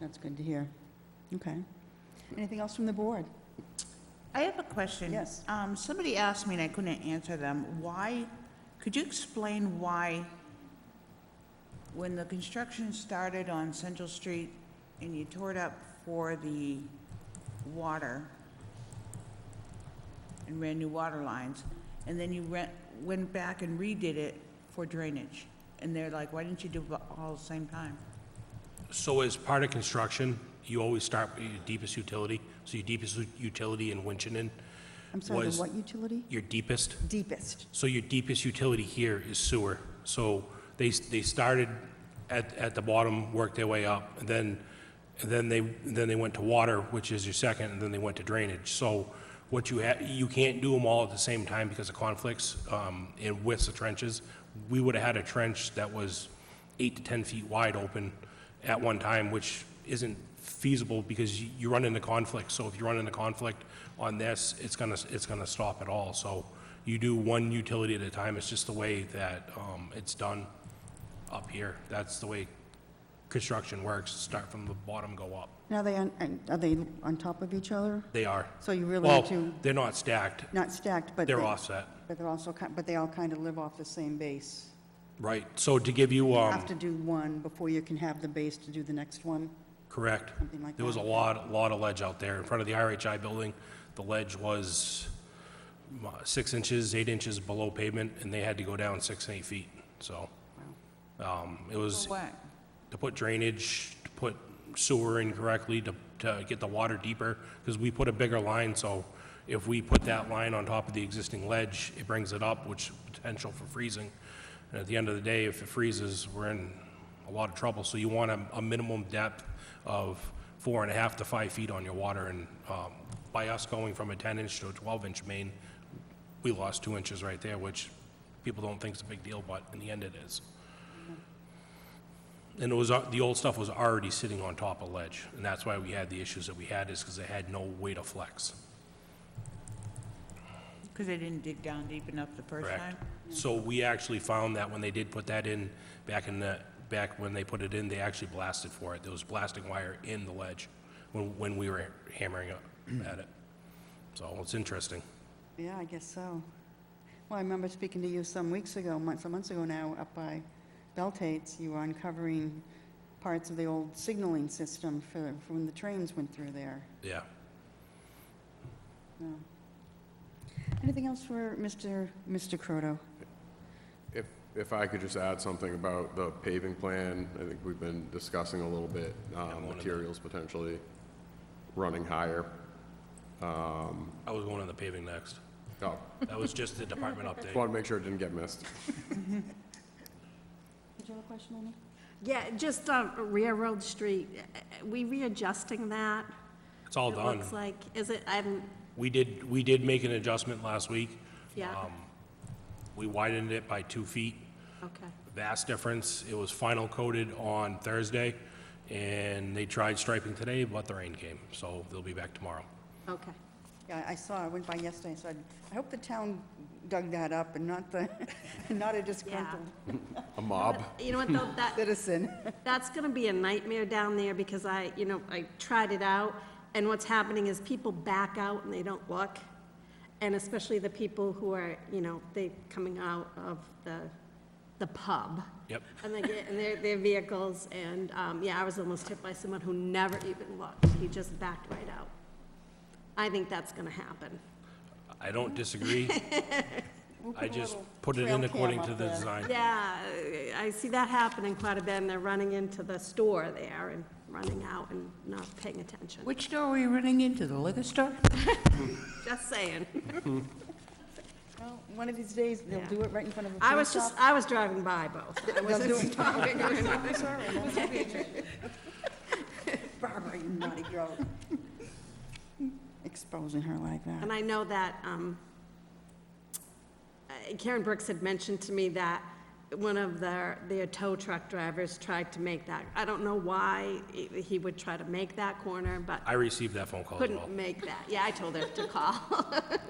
That's good to hear. Okay. Anything else from the board? I have a question. Yes. Um, somebody asked me and I couldn't answer them, why, could you explain why when the construction started on Central Street and you tore it up for the water and ran new water lines, and then you went, went back and redid it for drainage? And they're like, why didn't you do it all at the same time? So as part of construction, you always start with your deepest utility. So your deepest utility in Winchton, I'm sorry, the Was- what utility? your deepest, Deepest. so your deepest utility here is sewer. So they, they started at, at the bottom, worked their way up, and then, and then they, then they went to water, which is your second, and then they went to drainage. So what you ha you can't do them all at the same time because of conflicts, um, and widths of trenches. We would've had a trench that was eight to 10 feet wide open at one time, which isn't feasible because you- you run into conflict. So if you run into conflict on this, it's gonna, it's gonna stop at all. So you do one utility at a time. It's just the way that um, it's done up here. That's the way construction works, start from the bottom, go up. Now, they, on- and are they on top of each other? They are. So you really Well, have to, they're not stacked. not stacked, but. They're they- offset, But they're also, ki- but they all kind of live off the same base. right. So to give you, You um, have to do one before you can have the base to do the next one. Correct. Something like There was a that. lot, lot of ledge out there in front of the RHI building. The ledge was mm, uh, six inches, eight inches below pavement, and they had to go down six, and eight feet, so. um, It was What? to put drainage, to put sewer in correctly, to, to get the water deeper, because we put a bigger line, so if we put that line on top of the existing ledge, it brings it up, which potential for freezing. And at the end of the day, if it freezes, we're in a lot of trouble, so you want a, a minimum depth of four and a half to five feet on your water, and, um, by us going from a ten inch to a twelve inch main, we lost two inches right there, which people don't think is a big deal, but in the end it is. And it was, uh, the old stuff was already sitting on top of ledge, and that's why we had the issues that we had, is because they had no way to flex. Because they didn't dig down deep enough the first time? Correct. So we actually found that when they did put that in, back in the, back when they put it in, they actually blasted for it. There was blasting wire in the ledge when, when we were hammering up at it. So it's interesting. Yeah, I guess so. Well, I remember speaking to you some weeks ago, months, some months ago now, up by Beltates, you were uncovering parts of the old signaling system for, for when the trains went through there. Yeah. Yeah. Anything else for Mr. Mr. Croto? If, if I could just add something about the paving plan, I think we've been discussing a little bit, um, materials potentially running higher. I was going on the paving next. Oh, That was just the department update. wanted to make sure it didn't get missed. Did you have a question, Amy? Yeah, just um, Railroad Street, uh, we readjusting that? It's all It done. looks like, is it, I'm, We did, we did make an adjustment last week. Um, yeah, We widened it by two feet. okay. vast difference. It was final coated on Thursday, and they tried striping today, but the rain came, so they'll be back tomorrow. Okay. Yeah, I saw, I went by yesterday, so I, I hope the town dug that up and not the, not a disgruntled A mob? But You know what, though, that, citizen. that's gonna be a nightmare down there, because I, you know, I tried it out, and what's happening is people back out and they don't look, and especially the people who are, you know, they coming out of the, the pub. Yep. And they get, in their, their vehicles, and, um, yeah, I was almost hit by someone who never even looked, he just backed right out. I think that's gonna happen. I don't disagree. I just put it trail in cam according to up the there. design. Yeah, I see that happening quite a bit, and they're running into the store there and running out and not paying attention. Which door are we running into, the liquor store? Just saying. Well, One of these days, they'll Yeah. do it right in front of a I police was officer. just, I was driving by, Bo. I wasn't stopping or anything. Barbara, you naughty girl. Exposing her like that. And I know that um, uh, Karen Brooks had mentioned to me that one of their, their tow truck drivers tried to make that. I don't know why he- he would try to make that corner, but I received that phone call as well. couldn't make that. Yeah, I told her to call.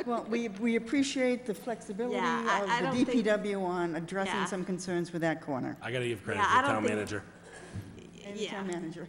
Well, we, we appreciate the flexibility of Yeah, I- I don't the think- DPW on addressing Yeah. some concerns with that corner. I gotta give credit Yeah, to I the don't town think- manager. And the Yeah. town manager.